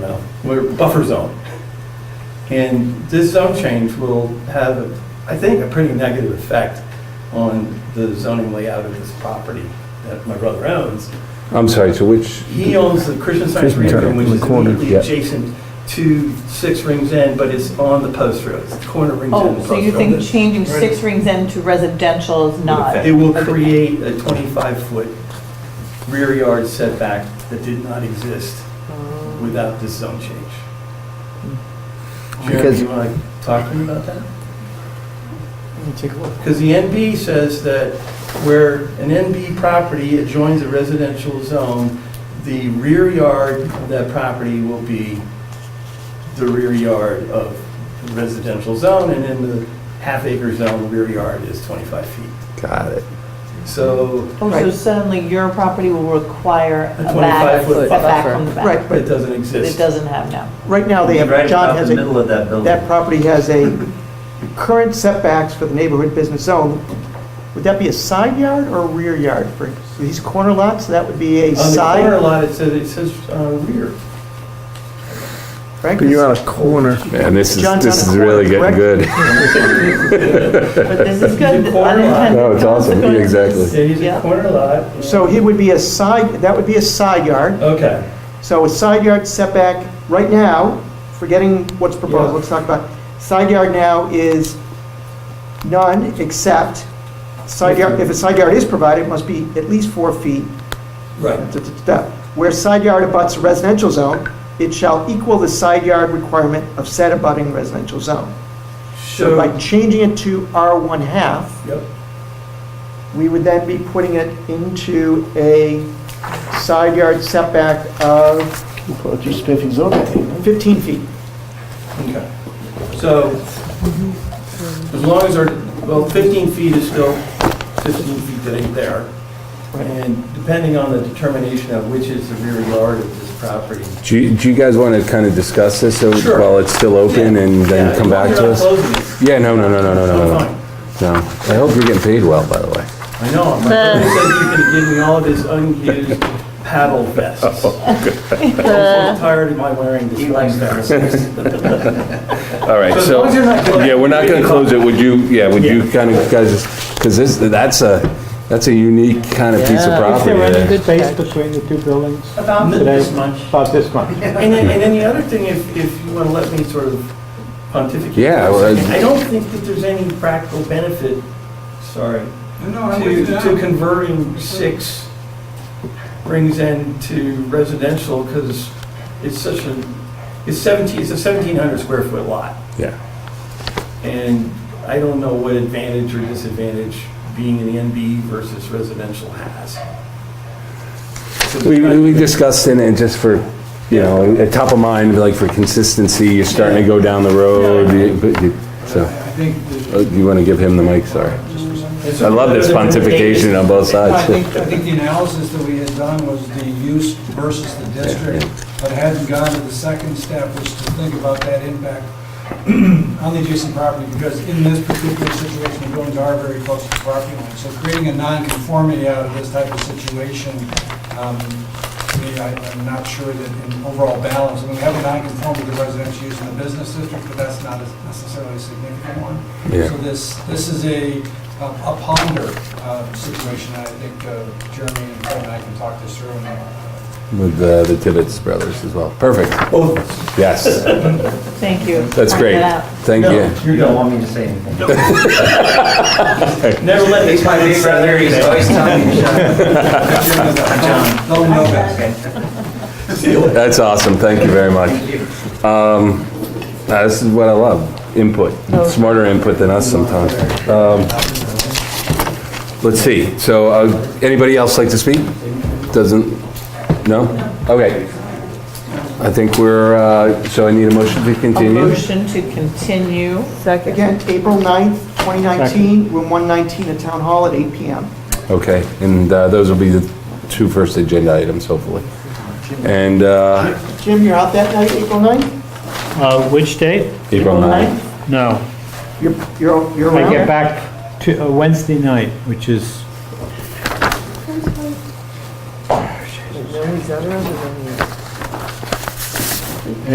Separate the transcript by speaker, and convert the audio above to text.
Speaker 1: we're buffer zone. And this zone change will have, I think, a pretty negative effect on the zoning layout of this property that my brother owns.
Speaker 2: I'm sorry, so which,
Speaker 1: He owns the Christian Science
Speaker 3: Christian
Speaker 1: Reading
Speaker 3: Center,
Speaker 1: Room, which
Speaker 3: in the
Speaker 1: is
Speaker 3: corner,
Speaker 1: immediately
Speaker 2: yeah.
Speaker 1: adjacent to Six Rings End, but it's on the post road, it's the corner of Rings End.
Speaker 4: Oh,
Speaker 1: and
Speaker 4: so
Speaker 1: Post
Speaker 4: you
Speaker 1: Road.
Speaker 4: think changing Six Rings End to residential is not?
Speaker 1: It will create a 25-foot rear yard setback that did not exist without this zone change. Jeremy,
Speaker 3: Because-
Speaker 1: you want to talk to me about that?
Speaker 5: Let me take a look.
Speaker 1: Because the NB says that where an NB property adjoins a residential zone, the rear yard of that property will be the rear yard of the residential zone, and in the half acre zone, the rear yard is 25 feet.
Speaker 3: Got it.
Speaker 1: So,
Speaker 4: Oh, so suddenly your property will require
Speaker 1: A
Speaker 4: a back,
Speaker 1: 25-foot
Speaker 4: setback
Speaker 6: buffer.
Speaker 4: from the
Speaker 5: Right.
Speaker 4: back.
Speaker 1: but it doesn't
Speaker 4: It
Speaker 1: exist.
Speaker 4: doesn't have now.
Speaker 5: Right now, they have,
Speaker 7: Right
Speaker 5: John
Speaker 7: about
Speaker 5: has
Speaker 7: the
Speaker 5: a,
Speaker 7: middle of that building.
Speaker 5: that property has a current setbacks for the neighborhood business zone. Would that be a side yard or a rear yard for these corner lots? That would be a
Speaker 1: On the corner
Speaker 5: side,
Speaker 1: lot, it says, it says uh, rear.
Speaker 5: Frank?
Speaker 3: But you're on a corner.
Speaker 2: man, this is,
Speaker 5: John's
Speaker 2: this is
Speaker 5: on the corner,
Speaker 2: really getting
Speaker 5: correct?
Speaker 2: good.
Speaker 4: But this is good,
Speaker 1: The corner lot.
Speaker 4: unintended.
Speaker 2: No, it's awesome,
Speaker 4: consequences.
Speaker 2: exactly.
Speaker 1: It is a
Speaker 4: Yeah.
Speaker 1: corner lot.
Speaker 5: So it would be a side, that would be a side yard.
Speaker 1: Okay.
Speaker 5: So a side yard setback, right now, forgetting what's
Speaker 1: Yeah.
Speaker 5: proposed, let's talk about, side yard now is none, except, side yard, if a side yard is provided, it must be at least four feet
Speaker 1: Right.
Speaker 5: da, da, da, da. Where side yard abuts a residential zone, it shall equal the side yard requirement of said abutting residential zone. So by changing it to R1 half,
Speaker 1: Yep.
Speaker 5: we would then be putting it into a side yard setback of 15 feet.
Speaker 1: Okay. So, as long as our, well, 15 feet is still 15 feet that ain't there. And depending on the determination of which is the rear yard of this property.
Speaker 2: Do you, do you guys want to kind of discuss this so-
Speaker 1: Sure.
Speaker 2: while it's still open and
Speaker 1: Yeah,
Speaker 2: then come back to
Speaker 1: You're
Speaker 2: us?
Speaker 1: not closing
Speaker 2: Yeah, no, no, no, no, no,
Speaker 1: it.
Speaker 2: no,
Speaker 1: I'm
Speaker 2: no,
Speaker 1: fine.
Speaker 2: no. I hope you're getting paid well, by the way.
Speaker 1: I know, my brother said he's gonna give me all of his unused paddle vests. I'm
Speaker 2: Oh,
Speaker 1: so tired of my wearing this. He likes that.
Speaker 2: All right,
Speaker 1: So as
Speaker 2: so,
Speaker 1: long as you're not closing-
Speaker 2: yeah, we're not going to close it, would you, yeah, would you
Speaker 1: Yeah.
Speaker 2: kind of, guys, because this, that's a, that's a unique kind of piece of
Speaker 6: Yeah.
Speaker 8: Is
Speaker 2: property
Speaker 8: there any
Speaker 2: there.
Speaker 8: good space between the two buildings
Speaker 1: About
Speaker 8: today?
Speaker 1: this much.
Speaker 8: About this much.
Speaker 1: And then, and then the other thing, if, if you want to let me sort of pontificate.
Speaker 2: Yeah,
Speaker 1: for a
Speaker 2: well,
Speaker 1: second, I don't think that there's any practical benefit, sorry, to, to converting six Rings End to residential because it's such a, it's 17, it's a 1,700 square foot lot.
Speaker 2: Yeah.
Speaker 1: And I don't know what advantage or disadvantage being an NB versus residential has.
Speaker 2: We, we discussed in it just for, you know, at top of mind, like for consistency, you're starting to go down the road, you- but you- so. Oh, You want to give him the mic, sorry. I love this pontification on both
Speaker 9: I
Speaker 2: sides.
Speaker 9: think, I think the analysis that we had done was the use versus the district, but hadn't gone to the second step, which is to think about that impact on the adjacent property, because in this particular situation, the buildings are very close to the property line. So creating a non-conformity out of this type of situation, um, to me, I- I'm not sure that in overall balance, I mean, we have a non-conformity to residential use in the business district, but that's not a- necessarily a significant one.
Speaker 2: Yeah.
Speaker 9: So this, this is a, a ponder uh, situation, and I think uh, Jeremy and Fred and I can talk this through. and, uh,
Speaker 2: With uh, the Tibbetts brothers as well. Perfect.
Speaker 7: Oh.
Speaker 1: Both of us.
Speaker 2: Yes,
Speaker 4: Thank you.
Speaker 2: that's
Speaker 4: Point
Speaker 2: great.
Speaker 4: that out.
Speaker 2: Thank
Speaker 1: No.
Speaker 2: you.
Speaker 7: You don't want me to say anything.
Speaker 1: Never let the
Speaker 7: He's my big brother, he's always telling me to shut up.
Speaker 9: Jeremy,
Speaker 7: John.
Speaker 9: they'll know that.
Speaker 7: Okay,
Speaker 2: That's awesome. Thank you very much.
Speaker 7: thank you.
Speaker 2: Um, uh, This is what I love, input, smarter input than us sometimes. Um, Let's see, so uh, anybody else like to speak? Doesn't, no? Okay. I think we're, uh, so I need a motion to
Speaker 4: A
Speaker 2: continue?
Speaker 4: motion to continue.
Speaker 6: Second.
Speaker 5: Again, April 9th, 2019, room 119 at Town Hall at 8 PM.
Speaker 2: Okay, and uh, those will be the two first agenda items, hopefully. And uh,
Speaker 5: Jim, you're out that night, April 9th?
Speaker 8: Uh, Which date?
Speaker 2: April 9th.
Speaker 8: No.
Speaker 5: You're, you're you're
Speaker 8: I
Speaker 5: around?
Speaker 8: get back to uh, Wednesday night, which is
Speaker 6: No, he's other than